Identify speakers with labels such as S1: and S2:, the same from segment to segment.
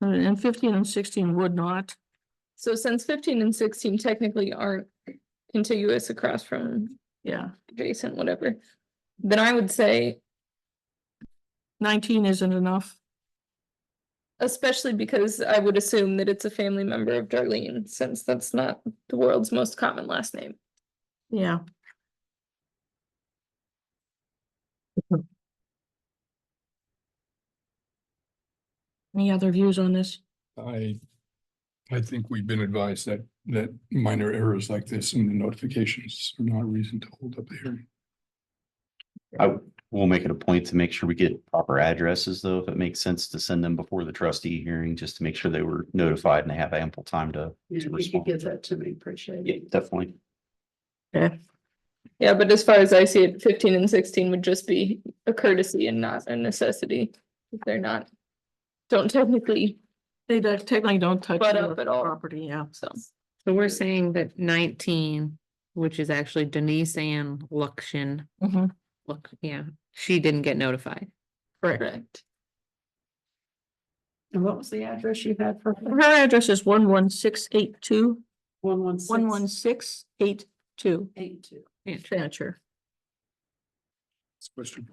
S1: And fifteen and sixteen would not.
S2: So since fifteen and sixteen technically aren't contiguous across from
S1: Yeah.
S2: adjacent, whatever. Then I would say,
S1: Nineteen isn't enough.
S2: especially because I would assume that it's a family member of Darlene, since that's not the world's most common last name.
S1: Yeah. Any other views on this?
S3: I, I think we've been advised that, that minor errors like this in the notifications are not a reason to hold up the hearing.
S4: I will make it a point to make sure we get proper addresses, though, if it makes sense to send them before the trustee hearing, just to make sure they were notified and they have ample time to.
S5: Yeah,
S4: to
S5: if you could
S4: respond.
S5: give that to me, appreciate
S4: Yeah,
S5: it.
S4: definitely.
S2: Yeah, but as far as I see it, fifteen and sixteen would just be a courtesy and not a necessity. if They're not, don't technically,
S1: They don't- technically don't touch
S2: But
S1: your
S2: up at all.
S1: property, yeah.
S2: so.
S6: So we're saying that nineteen, which is actually Denise Ann Luxon,
S2: Mm-hmm.
S1: Mhm.
S6: look, yeah, she didn't get notified.
S2: Correct.
S5: And what was the address you had for
S1: Her address is one one six eight two,
S5: one one six?
S1: one one six eight two,
S5: Eight two.
S1: Fancher.
S3: It's Western.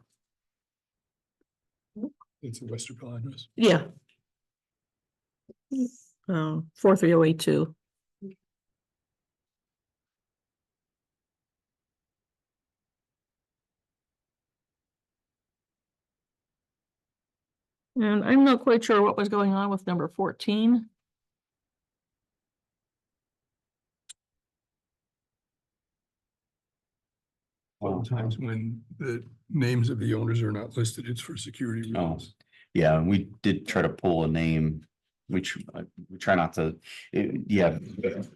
S3: It's a Westerville address.
S1: Yeah. Um, four three oh eight two. And I'm not quite sure what was going on with number fourteen.
S3: Sometimes when the names of the owners are not listed, it's for security
S4: Oh.
S3: reasons.
S4: Yeah, and we did try to pull a name, which uh, we try not to, it- yeah,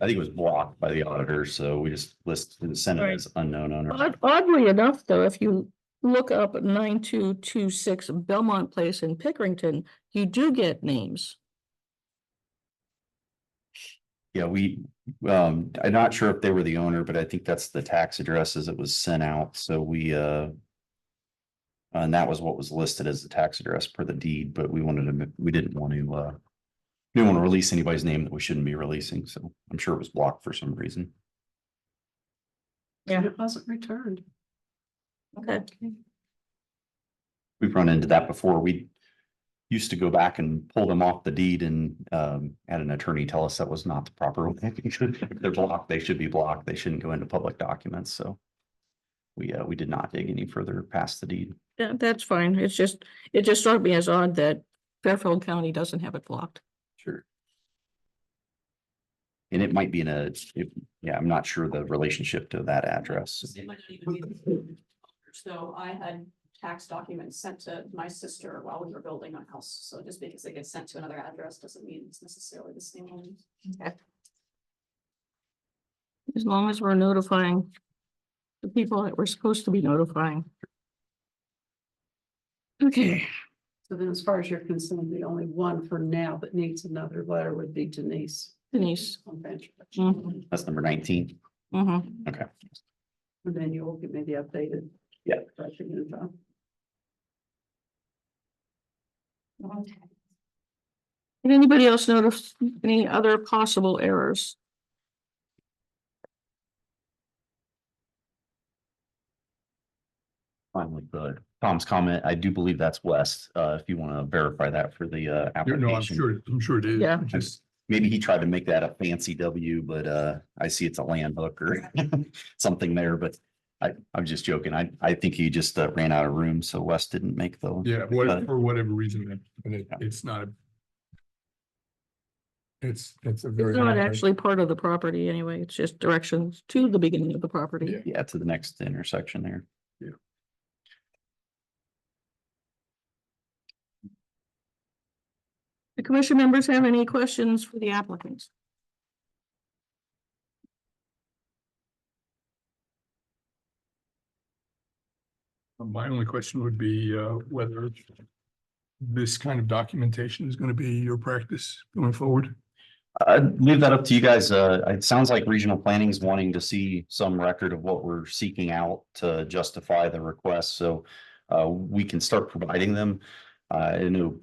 S4: I think it was blocked by the auditor, so we just list, send it
S1: Right.
S4: as unknown owner.
S1: Odd- Oddly enough, though, if you look up nine two two six Belmont Place in Pickerington, you do get names.
S4: Yeah, we, um, I'm not sure if they were the owner, but I think that's the tax addresses that was sent out, so we, uh. And that was what was listed as the tax address per the deed, but we wanted to, we didn't want to, uh. we Didn't want to release anybody's name that we shouldn't be releasing, so I'm sure it was blocked for some reason.
S1: Yeah.
S5: It wasn't returned.
S1: Okay.
S4: we've run into that before. We used to go back and pull them off the deed and um had an attorney tell us that was not the proper way. If They're blocked, they should be blocked, they shouldn't go into public documents, so. We uh, we did not dig any further past the deed.
S1: Yeah, that's fine. It's just, it just struck me as odd that Fairfield County doesn't have it blocked.
S4: Sure. And it might be in a, it- yeah, I'm not sure the relationship to that address.
S5: It might not even be- So I had tax documents sent to my sister while we were building a house, so just because they get sent to another address doesn't mean it's necessarily the same one.
S1: As long as we're notifying the people that we're supposed to be notifying. Okay,
S5: So then as far as you're concerned, the only one for now that needs another letter would be Denise.
S1: Denise.
S5: On Venture.
S1: Mhm.
S5: And
S4: That's number nineteen.
S1: mhm.
S4: Okay.
S5: then you will get maybe updated.
S4: Yeah.
S5: Right, for you, John.
S1: Did anybody else notice any other possible errors?
S4: Finally, the Tom's comment, I do believe that's West, uh, if you want to verify that for the uh.
S3: Yeah, No, I'm
S4: application.
S3: sure, I'm sure it is.
S1: Yeah.
S3: Just,
S4: maybe he tried to make that a fancy W, but uh, I see it's a land hook or something there, but I, I'm just joking. I, I think he just uh, ran out of room, so Wes didn't make the.
S3: yeah,
S4: Uh,
S3: what, for whatever reason, that- but it,
S4: Yeah.
S3: it's not a. It's, it's a very.
S1: It's not
S3: minor-
S1: actually part of the property anyway. It's just directions to the beginning of the property.
S3: Yeah.
S4: Yeah, to the next intersection there.
S1: The commission members have any questions for the applicants?
S3: My only question would be uh, whether this kind of documentation is going to be your practice going forward.
S4: I'd leave that up to you guys. Uh, it sounds like regional planning's wanting to see some record of what we're seeking out to justify the request, so. Uh, we can start providing them. Uh, I know